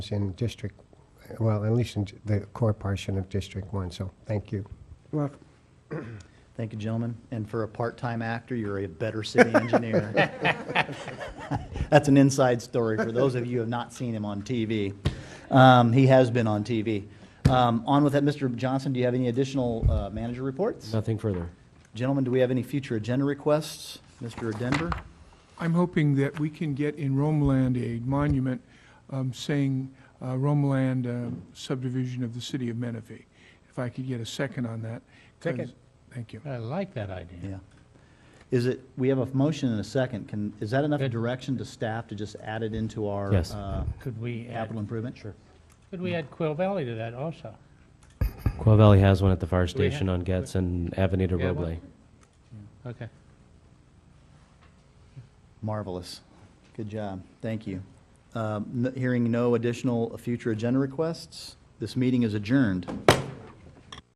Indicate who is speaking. Speaker 1: in District, well, at least in the core portion of District One, so thank you.
Speaker 2: Well,
Speaker 3: Thank you, gentlemen. And for a part-time actor, you're a better city engineer. That's an inside story for those of you who have not seen him on TV. Um, He has been on TV. Um, On with that, Mr. Johnson, do you have any additional uh, manager reports?
Speaker 4: Nothing further.
Speaker 3: Gentlemen, do we have any future agenda requests? Mr. Denver?
Speaker 5: I'm hoping that we can get in Romeland a monument um, saying uh, Romeland um, subdivision of the city of Menifee. If I could get a second on that. 'cause-
Speaker 6: Second.
Speaker 5: Thank you.
Speaker 6: I like that idea.
Speaker 3: Yeah. Is it, we have a motion and a second. Can, is that enough
Speaker 6: Good.
Speaker 3: direction to staff to just add it into our?
Speaker 4: Yes.
Speaker 3: uh,
Speaker 6: Could we add,
Speaker 3: Capital improvement? Sure.
Speaker 6: could we add Quill Valley to that also?
Speaker 4: Quail Valley has one at the fire
Speaker 6: Do we have-
Speaker 4: station on Getz and Avenida
Speaker 6: We have one?
Speaker 4: Roble.
Speaker 6: Okay.
Speaker 3: Marvelous. Good job. Thank you. Um, n- Hearing no additional future agenda requests, this meeting is adjourned.